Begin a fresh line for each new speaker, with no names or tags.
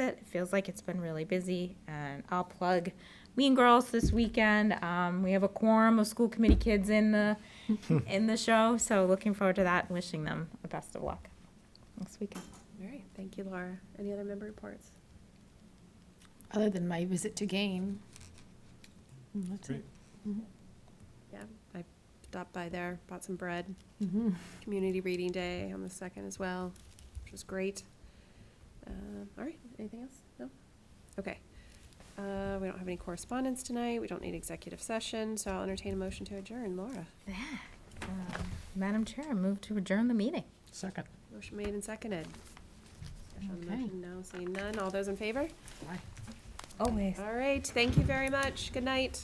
it. It feels like it's been really busy. And I'll plug Mean Girls this weekend. Um, we have a quorum of school committee kids in the in the show, so looking forward to that. and Wishing them the best of luck next weekend.
All right, thank you, Laura. Any other member reports?
Other than my visit to Game. Mm, That's it.
Yeah, I stopped by there, bought some bread,
Mhm.
community reading day on the second as well, which was great. Um, all right, anything else? No? Okay. Uh, we don't have any correspondence tonight. We don't need executive session, so I'll entertain a motion to adjourn. Laura,
Um, Madam Chair, I move to adjourn the meeting.
Second.
motion made and seconded. Discussion on the
Okay.
motion, no, seeing none. All those in favor?
Bye.
Always.
All right, thank you very much. Good night.